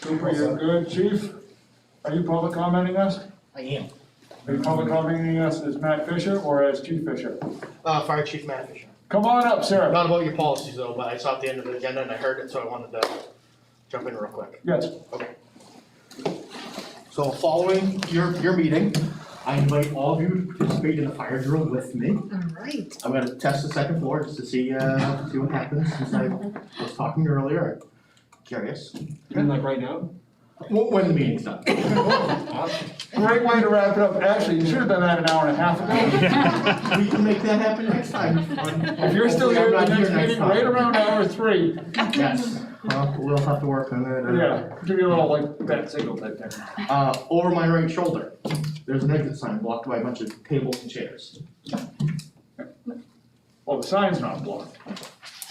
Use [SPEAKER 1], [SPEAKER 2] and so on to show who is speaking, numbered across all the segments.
[SPEAKER 1] Cooper, you're good, chief? Are you public commenting us?
[SPEAKER 2] I am.
[SPEAKER 1] Are you public commenting us as Matt Fisher or as Chief Fisher?
[SPEAKER 2] Uh, Fire Chief Matt Fisher.
[SPEAKER 1] Come on up, sir.
[SPEAKER 2] Not about your policies though, but I saw at the end of the agenda and I heard it, so I wanted to jump in real quick.
[SPEAKER 1] Yes.
[SPEAKER 3] So following your, your meeting, I invite all of you to participate in a fire drill with me.
[SPEAKER 4] All right.
[SPEAKER 3] I'm gonna test the second floor just to see, uh, see what happens, since I was talking earlier, curious.
[SPEAKER 5] You mean like right now?
[SPEAKER 3] When, when the meeting's done.
[SPEAKER 1] Great way to wrap it up. Actually, you should have done that an hour and a half ago.
[SPEAKER 3] We can make that happen next time.
[SPEAKER 1] If you're still here at the next meeting,
[SPEAKER 3] Hopefully
[SPEAKER 1] right
[SPEAKER 3] I'm not
[SPEAKER 1] around hour three,
[SPEAKER 3] here next time. Yes, Well, we'll have to work on that. uh,
[SPEAKER 1] yeah, give you a little like that.
[SPEAKER 5] That signal type thing.
[SPEAKER 3] uh, over my right shoulder, there's an exit sign blocked by a bunch of tables and chairs.
[SPEAKER 1] Well, the sign's not blocked.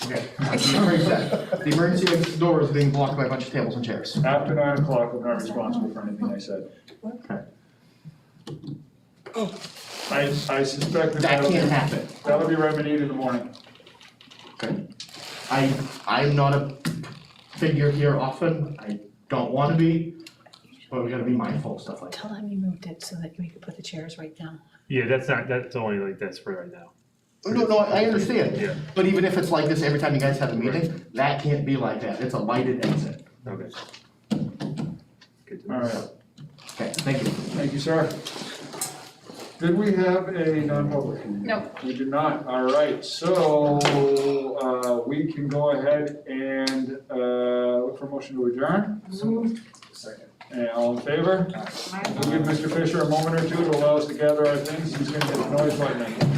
[SPEAKER 3] Okay. I'm sorry, Zach. The emergency exit door is being blocked by a bunch of tables and chairs.
[SPEAKER 1] After nine o'clock, we're not responsible for anything I said.
[SPEAKER 3] Okay.
[SPEAKER 1] I, I suspect that
[SPEAKER 3] That
[SPEAKER 1] that'll be,
[SPEAKER 3] can't happen.
[SPEAKER 1] that'll be remedied in the morning.
[SPEAKER 3] Okay. I, I'm not a figure here often, I don't wanna be, but we gotta be mindful of stuff like that.
[SPEAKER 4] Tell them you moved it so that we could put the chairs right down.
[SPEAKER 6] Yeah, that's not, that's only like this for right now.
[SPEAKER 3] No, no, I I
[SPEAKER 6] Yeah.
[SPEAKER 3] understand, but even if it's like this every time you guys have a meeting, that can't be like that, it's a lighted exit.
[SPEAKER 6] Okay. Good to know.
[SPEAKER 1] All right.
[SPEAKER 3] Okay, thank you.
[SPEAKER 1] Thank you, sir. Did we have a non-public?
[SPEAKER 4] No.
[SPEAKER 1] We did not, all right, so, uh, we can go ahead and, uh, look for a motion to adjourn.
[SPEAKER 5] Second.
[SPEAKER 1] And all in favor? We'll give Mr. Fisher a moment or two to allow us to gather our things, he's gonna get the noise right now.